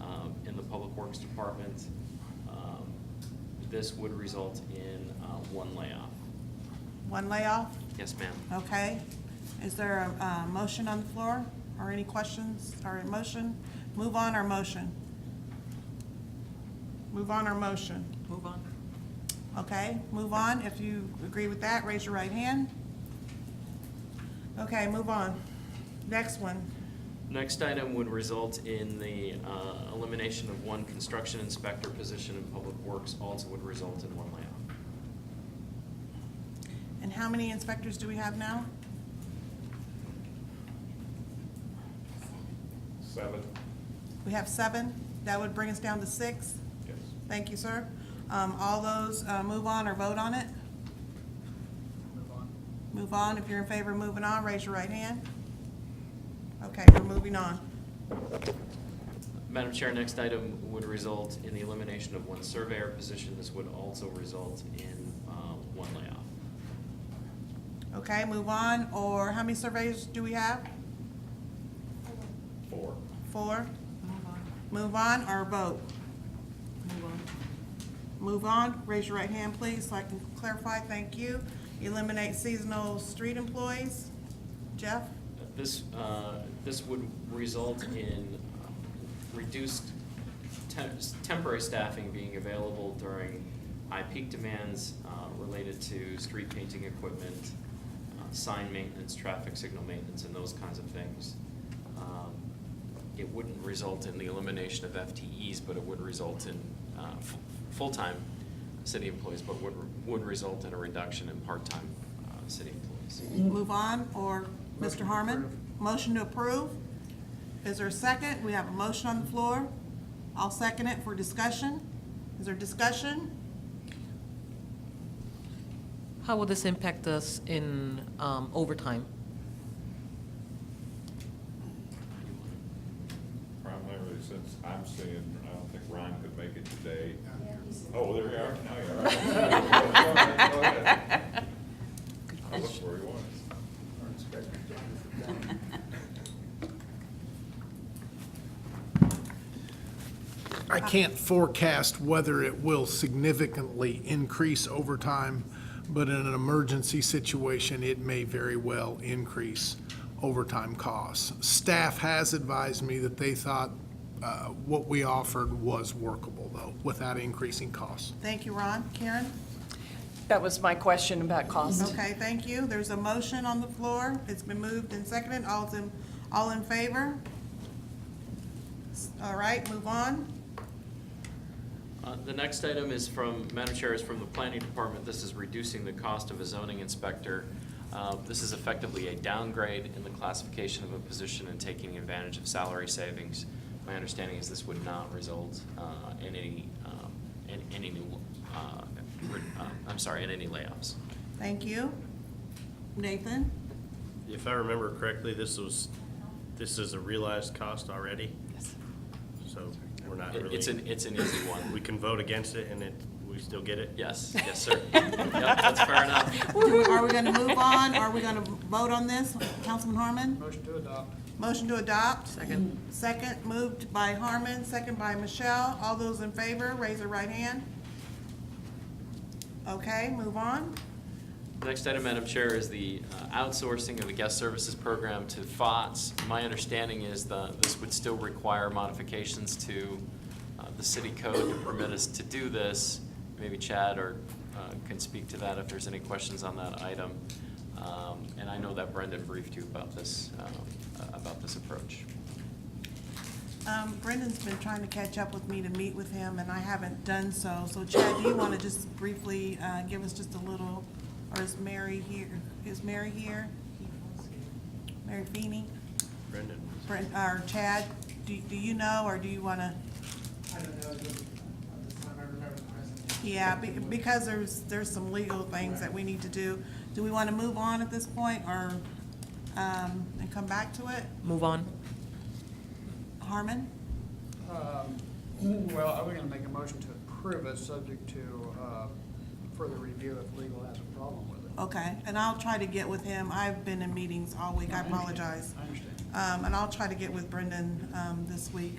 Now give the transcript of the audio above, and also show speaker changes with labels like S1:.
S1: um, Works Department. Um, This would result in uh, one layoff.
S2: One layoff,
S1: Yes, ma'am.
S2: okay. Is there a, uh motion on the floor or any questions or a motion? Move on or motion? Move on or motion?
S3: Move on.
S2: Okay, move on. If you agree with that, raise your right hand. Okay, move on. Next one.
S1: Next item would result in the uh, elimination of one construction inspector position in Public Works, also would result in one layoff.
S2: And how many inspectors do we have now?
S4: Seven,
S2: We have seven. That would bring us down to six.
S4: yes.
S2: Thank you, sir. Um, all those, uh, move on or vote on it?
S3: Move on.
S2: Move on. If you're in favor of moving on, raise your right hand. Okay, we're moving on.
S1: Madam Chair, next item would result in the elimination of one surveyor position. This would also result in uh, one layoff.
S2: Okay, move on. Or how many surveys do we have?
S4: Four,
S2: Four?
S3: Move on.
S2: Move on or vote?
S3: Move on.
S2: Move on, raise your right hand, please, so I can clarify, thank you. Eliminate seasonal street employees. Jeff?
S1: This, uh, this would result in um, reduced tem- temporary staffing being available during high peak demands uh, related to street painting equipment, uh, sign maintenance, traffic signal maintenance, and those kinds of things. Um, It wouldn't result in the elimination of FTEs, but it would result in uh, f- full-time city employees, but would, would result in a reduction in part-time uh, city employees.
S2: Move on, or Mr. Harmon? Motion to approve. Is there a second? We have a motion on the floor. I'll second it for discussion. Is there discussion?
S3: How will this impact us in um, overtime?
S4: primarily since I'm seeing, I don't think Ron could make it today.
S5: Yeah, he's-
S4: Oh, there you are, now you're right. I looked where he was.
S6: I can't forecast whether it will significantly increase overtime, but in an emergency situation, it may very well increase overtime costs. Staff has advised me that they thought uh, what we offered was workable, though, without increasing costs.
S2: Thank you, Ron. Karen?
S7: That was my question about cost.
S2: Okay, thank you. There's a motion on the floor. It's been moved and seconded. All's in, all in favor? All right, move on.
S1: Uh, The next item is from, Madam Chair, is from the Planning Department. This is reducing the cost of a zoning inspector. Uh, This is effectively a downgrade in the classification of a position and taking advantage of salary savings. My understanding is this would not result uh, in any, um, in any new, uh, re- uh, I'm sorry, in any layoffs.
S2: Thank you. Nathan?
S8: If I remember correctly, this was, this is a realized cost already,
S3: Yes.
S8: so we're not
S1: It-
S8: really.
S1: It's an, it's an easy
S8: We
S1: one.
S8: can vote against it and it, we still get it?
S1: Yes, yes, sir. Yep, that's fair enough.
S2: Do- Are we gonna move on? Are we gonna vote on this? Councilman Harmon?
S9: Motion to adopt.
S2: Motion to adopt?
S3: Second.
S2: Second, moved by Harmon, second by Michelle. All those in favor, raise your right hand. Okay, move on.
S1: Next item, Madam Chair, is the uh, outsourcing of the guest services program to FOTS. My understanding is that this would still require modifications to uh, the city code to permit us to do this. Maybe Chad or uh, can speak to that if there's any questions on that item. Um, And I know that Brendan briefed you about this, um, uh, about this approach.
S2: Um, Brendan's been trying to catch up with me to meet with him, and I haven't done so. So Chad, do you wanna just briefly, uh, give us just a little, or is Mary here? Is Mary here? Mary Feeney?
S8: Brendan?
S2: Brent, or Chad, do, do you know, or do you wanna?
S9: I don't know, just, at this time, I remember the presentation.
S2: Yeah, be- because there's, there's some legal things that we need to do. Do we wanna move on at this point, or, um, and come back to it?
S3: Move on.
S2: Harmon?
S9: Um, Well, I was gonna make a motion to approve it, subject to uh, further review if legal has a problem with it.
S2: Okay, and I'll try to get with him. I've been in meetings all week, I apologize.
S9: I understand.
S2: Um, and I'll try to get with Brendan, um, this week.